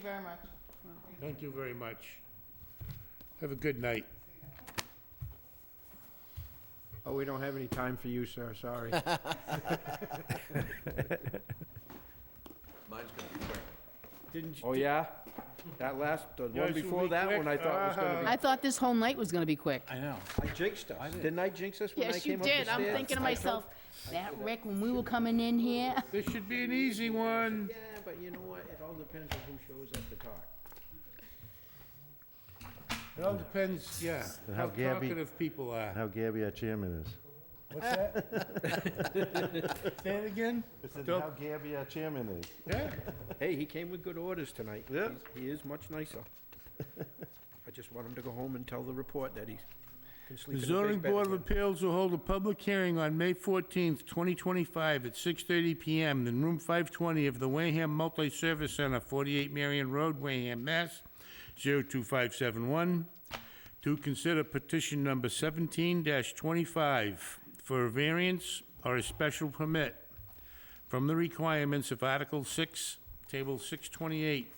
very much. Thank you very much. Have a good night. Oh, we don't have any time for you, sir, sorry. Mine's gonna be quick. Didn't you? Oh, yeah? That last, the Yours one will before be that quick. one, I thought was gonna I thought this whole night was gonna be quick. I know. be, I jinxed us. Didn't I jinx us when I Yes, you came up the stairs? did. I'm thinking to myself, that Rick, when we were coming in here, This should be an easy one. Yeah, but you know what, it all depends on who shows up to talk. It all depends, yeah, And how how Gabby- talkative people are. How Gabby, our chairman is. What's that? Say it again? I said, Don't- how Gabby, our chairman is. Yeah, Hey, he came with good orders tonight. Yeah. He's- He is much nicer. I just want him to go home and tell the report that he can sleep The in a zoning big bed board of again. appeals will hold a public hearing on May 14th, 2025, at 6:30 PM in room 520 of the Wareham Multi-Service Center, 48 Marion Road, Wareham, Mass. 02571, to consider petition number 17-25 for a variance or a special permit from the requirements of Article 6, Table 628,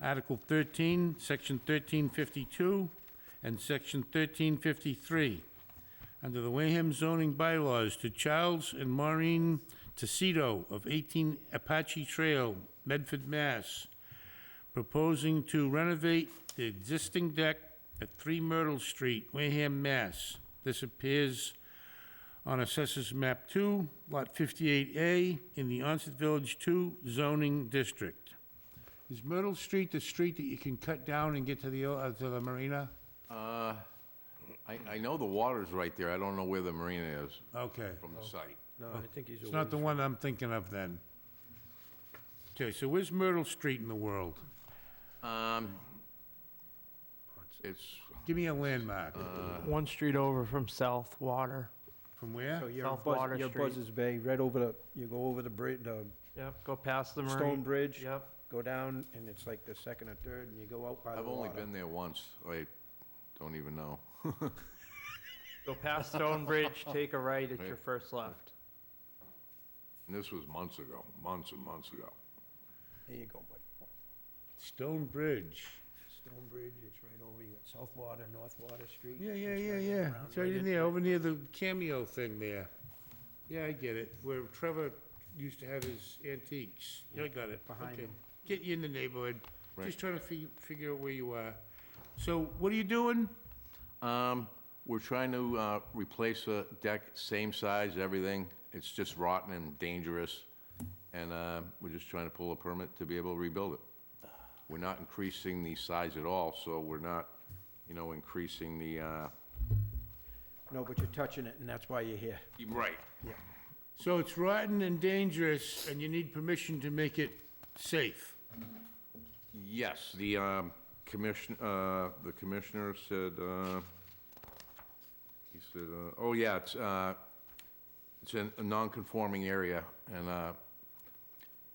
Article 13, Section 1352, and Section 1353, under the Wareham zoning bylaws to Charles and Maureen Tecito of 18 Apache Trail, Medford, Mass, proposing to renovate the existing deck at 3 Myrtle Street, Wareham, Mass. This appears on Assessors Map 2, Lot 58A, in the Onset Village 2 zoning district. Is Myrtle Street the street that you can cut down and get to the, uh, to the marina? I, I know the water's right there, I don't know where the marina is Okay. from the site. No, I think he's It's away. not the one I'm thinking of then. Okay, so where's Myrtle Street in the world? Um, it's, Give me a landmark. One street over from South Water. From where? So you're South Buzz- Water you're Street. Buzzards Bay, right over the, you go over the bridge, the Yep, go past the stone marine. bridge. Yep. Go down, and it's like the second or third, and you go out by the I've only water. been there once, I don't even know. Go past Stone Bridge, take a right at your first left. And this was months ago, months and months ago. There you go, buddy. Stone Bridge. Stone Bridge, it's right over, you got South Water, North Water Street. Yeah, yeah, it's yeah, right yeah. around It's right in there, over near the cameo thing there. Yeah, I get it, where Trevor used to have his antiques. Yeah, I got it. Behind Okay. him. Get you in the neighborhood. Just trying to fig- figure out where you are. So what are you doing? Um, we're trying to, uh, replace the deck, same size, everything. It's just rotten and dangerous. And, uh, we're just trying to pull a permit to be able to rebuild it. We're not increasing the size at all, so we're not, you know, increasing the, uh. No, but you're touching it, and that's why you're here. Right. So it's rotten and dangerous, and you need permission to make it safe. Yes, the, um, commission, uh, the commissioner said, uh, he said, uh, oh, yeah, it's, uh, it's in a non-conforming area, and, uh,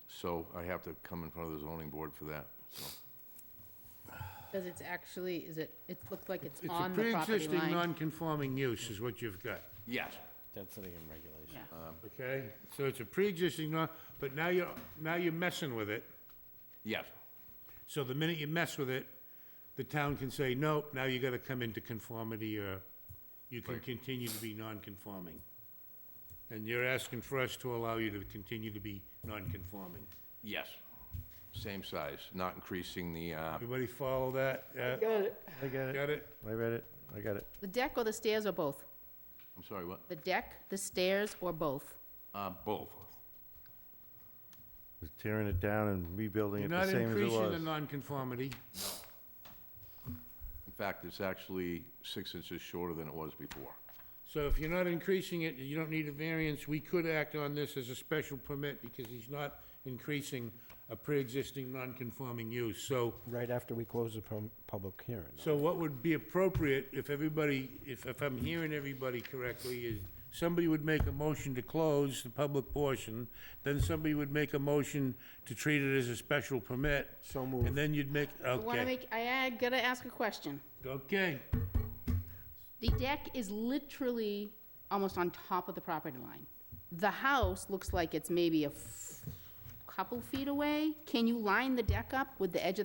so I have to come in front of the zoning board for that, so. because it's actually, is it, it looks like it's It's a on the property pre-existing line. non-conforming use is what you've got, Yes. Density and regulation. Yeah. okay? So it's a pre-existing non, but now you're, now you're messing with it. Yes, So the minute you mess with it, the town can say, nope, now you gotta come into conformity, or you can continue to be non-conforming. And you're asking for us to allow you to continue to be non-conforming. yes, same size, not increasing the, uh, Everybody follow that? Uh, Got it. I got it. Got it? I read it. I got it. The deck or the stairs or both? I'm sorry, what? The deck, the stairs, or both? Uh, both. Was tearing it down and rebuilding You're it not the same as it increasing the was. non-conformity. In fact, it's actually six inches shorter than it was before. So if you're not increasing it, you don't need a variance, we could act on this as a special permit because he's not increasing a pre-existing non-conforming use. So, Right after we close the pub- public hearing. so what would be appropriate if everybody, if, if I'm hearing everybody correctly, is somebody would make a motion to close the public portion, then somebody would make a motion to treat it as a special permit. So moved. And then you'd make, I wanna okay, make, I, I gotta ask a question. okay. The deck is literally almost on top of the property line. The house looks like it's maybe a f- couple feet away. Can you line the deck up with the edge of the